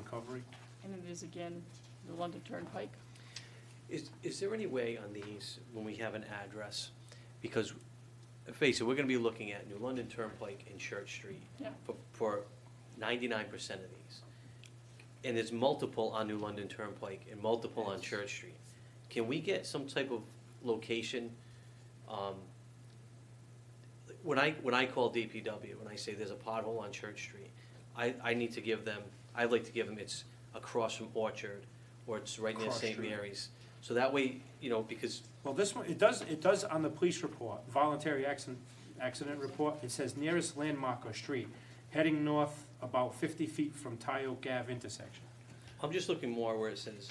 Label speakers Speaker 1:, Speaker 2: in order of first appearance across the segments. Speaker 1: recovery.
Speaker 2: And it is again, the London Turnpike.
Speaker 3: Is, is there any way on these, when we have an address, because, face it, we're gonna be looking at New London Turnpike and Church Street
Speaker 2: Yeah.
Speaker 3: for, for ninety-nine percent of these. And there's multiple on New London Turnpike and multiple on Church Street. Can we get some type of location, um, like, when I, when I call DPW, when I say there's a pothole on Church Street, I, I need to give them, I'd like to give them, it's across from Orchard, or it's right near
Speaker 1: Across
Speaker 3: St.
Speaker 1: Street.
Speaker 3: Mary's. So that way, you know, because,
Speaker 1: Well, this one, it does, it does on the police report, voluntary accident, accident report, it says nearest landmark or street, heading north about fifty feet from Tyo Gav intersection.
Speaker 3: I'm just looking more where it says,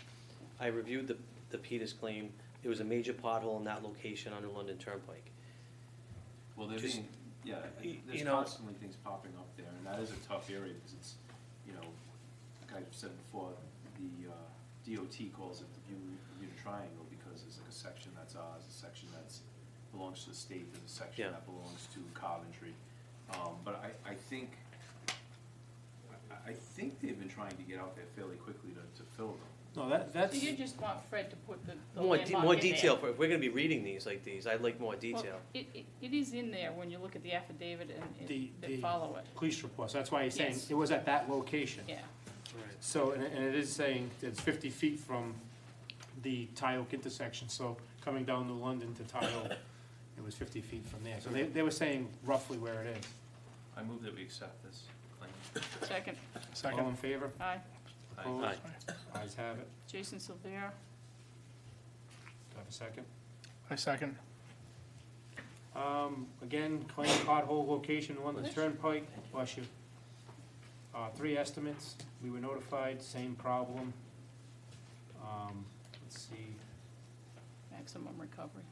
Speaker 3: I reviewed the, the Peters claim, there was a major pothole in that location on the London Turnpike.
Speaker 4: Well, they're
Speaker 3: Just-
Speaker 4: being, yeah, I-
Speaker 3: y-
Speaker 4: there's
Speaker 3: you know-
Speaker 4: constantly things popping up there, and that is a tough area, because it's, you know, like I've said before, the uh, DOT calls it the Bermuda Bermuda Triangle, because there's like a section that's ours, a section that's, belongs to the state, there's a
Speaker 3: Yeah.
Speaker 4: section that belongs to Coventry. Um, But I, I think, I- I think they've been trying to get out there fairly quickly to, to fill them.
Speaker 1: No, that,
Speaker 2: So
Speaker 1: that's,
Speaker 2: you just want Fred to put the the
Speaker 3: More,
Speaker 2: landmark
Speaker 3: de-
Speaker 2: in there?
Speaker 3: more detail, for- if we're gonna be reading these like these, I'd like more
Speaker 2: Well,
Speaker 3: detail.
Speaker 2: It, it, it is in there when you look at the affidavit and- and
Speaker 1: The-
Speaker 2: that
Speaker 1: the-
Speaker 2: follow it,
Speaker 1: police reports, that's why he's saying,
Speaker 2: Yes.
Speaker 1: it was at that location.
Speaker 2: yeah.
Speaker 1: So, and, it- and it is saying it's fifty feet from the Tyoke intersection, so coming down to London to Tyoke, it was fifty feet from there, so they, they were saying roughly where it is.
Speaker 4: I move that we accept this claim.
Speaker 2: Second,
Speaker 1: All in favor?
Speaker 2: aye.
Speaker 1: Opposed?
Speaker 3: Aye.
Speaker 1: Ayes have it.
Speaker 2: Jason Silvera,
Speaker 1: Do I have a second?
Speaker 5: I second.
Speaker 1: Um, again, claim pothole location, London
Speaker 2: Bless you.
Speaker 1: Turnpike, bless you. Uh, three estimates, we were notified, same problem. Um, let's see,
Speaker 2: maximum recovery.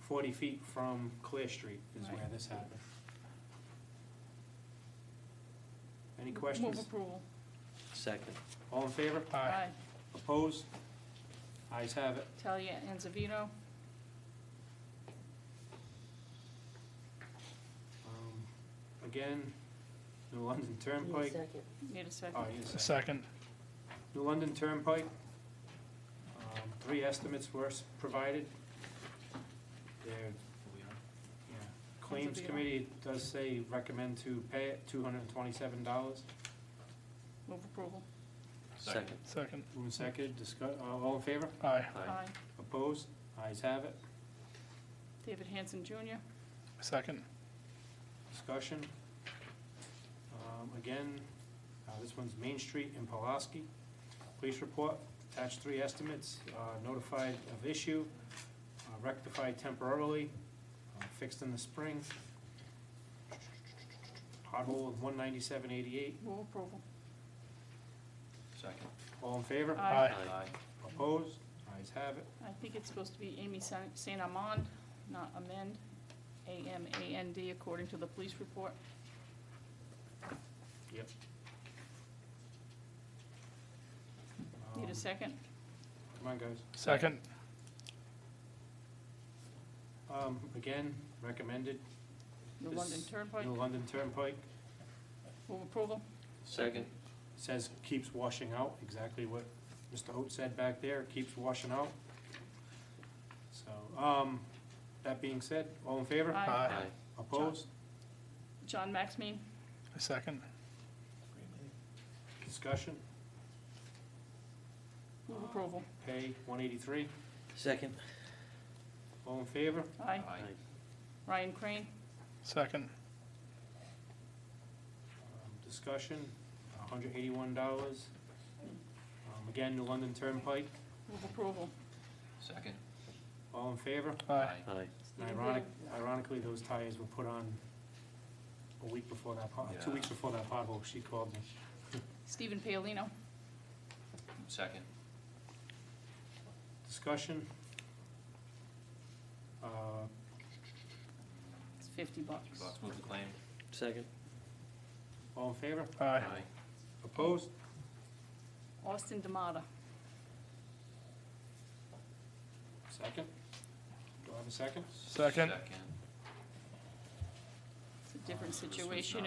Speaker 1: forty feet from Clear Street is where
Speaker 2: Right.
Speaker 1: this happened. Any
Speaker 2: Move
Speaker 1: questions?
Speaker 2: approval,
Speaker 3: Second,
Speaker 1: All in favor?
Speaker 5: Aye.
Speaker 2: aye.
Speaker 1: Opposed? Ayes have it.
Speaker 2: Talia Anzavino,
Speaker 1: Um, again, New London Turnpike,
Speaker 2: need a second.
Speaker 1: oh, you
Speaker 5: I
Speaker 1: said.
Speaker 5: Second.
Speaker 1: New London Turnpike, um, three estimates were s- provided. Their, yeah, claims
Speaker 2: deal.
Speaker 1: committee does say recommend to pay it two hundred and twenty-seven dollars.
Speaker 2: Move approval,
Speaker 3: second.
Speaker 5: Second.
Speaker 1: Move and second, discuss, all in favor?
Speaker 5: Aye.
Speaker 3: Aye.
Speaker 2: aye.
Speaker 1: Opposed? Ayes have it.
Speaker 2: David Hanson Jr.,
Speaker 5: Second.
Speaker 1: Discussion. Um, Again, uh, this one's Main Street in Pulaski. Police report, attached three estimates, uh, notified of issue, uh, rectified temporarily, uh, fixed in the spring. Pothole of one ninety-seven eighty-eight,
Speaker 2: move approval,
Speaker 4: Second.
Speaker 1: all in favor?
Speaker 2: aye.
Speaker 5: Aye.
Speaker 1: Opposed? Ayes have it.
Speaker 2: I think it's supposed to be Amy San- Saint Amand, not amend, A-M-A-N-D, according to the police report.
Speaker 1: Yep.
Speaker 2: Need
Speaker 1: Um,
Speaker 2: a second?
Speaker 1: Come on, guys.
Speaker 5: Second.
Speaker 1: Um, Again, recommended,
Speaker 2: The
Speaker 1: This-
Speaker 2: London Turnpike,
Speaker 1: New London Turnpike.
Speaker 2: move approval,
Speaker 3: Second.
Speaker 1: says keeps washing out, exactly what Mr. Hope said back there, keeps washing out. So, um, that being said, all in favor?
Speaker 2: Aye.
Speaker 5: Aye.
Speaker 1: Opposed?
Speaker 2: John Maxmean,
Speaker 5: I Second.
Speaker 1: Discussion?
Speaker 2: move approval,
Speaker 1: Pay one eighty-three,
Speaker 3: Second.
Speaker 1: all in favor?
Speaker 2: aye. Ryan Crane,
Speaker 5: Second.
Speaker 1: Um, Discussion, hundred eighty-one dollars. Um, again, New London Turnpike,
Speaker 2: move approval.
Speaker 4: Second.
Speaker 1: all in favor?
Speaker 5: Aye.
Speaker 3: Aye.
Speaker 1: And Ironic, ironically, those tires were put on a week before that pot, two
Speaker 4: Yeah.
Speaker 1: weeks before that pothole, she called me.
Speaker 2: Stephen Paolino,
Speaker 4: Second.
Speaker 1: Discussion? Uh,
Speaker 2: it's fifty bucks.
Speaker 4: move the claim.
Speaker 3: Second.
Speaker 1: All in favor?
Speaker 5: Aye.
Speaker 1: Opposed?
Speaker 2: Austin Damata,
Speaker 1: Second? Do I have a second?
Speaker 5: Second.
Speaker 2: it's a different
Speaker 4: Uh, this one's
Speaker 2: situation,
Speaker 4: not.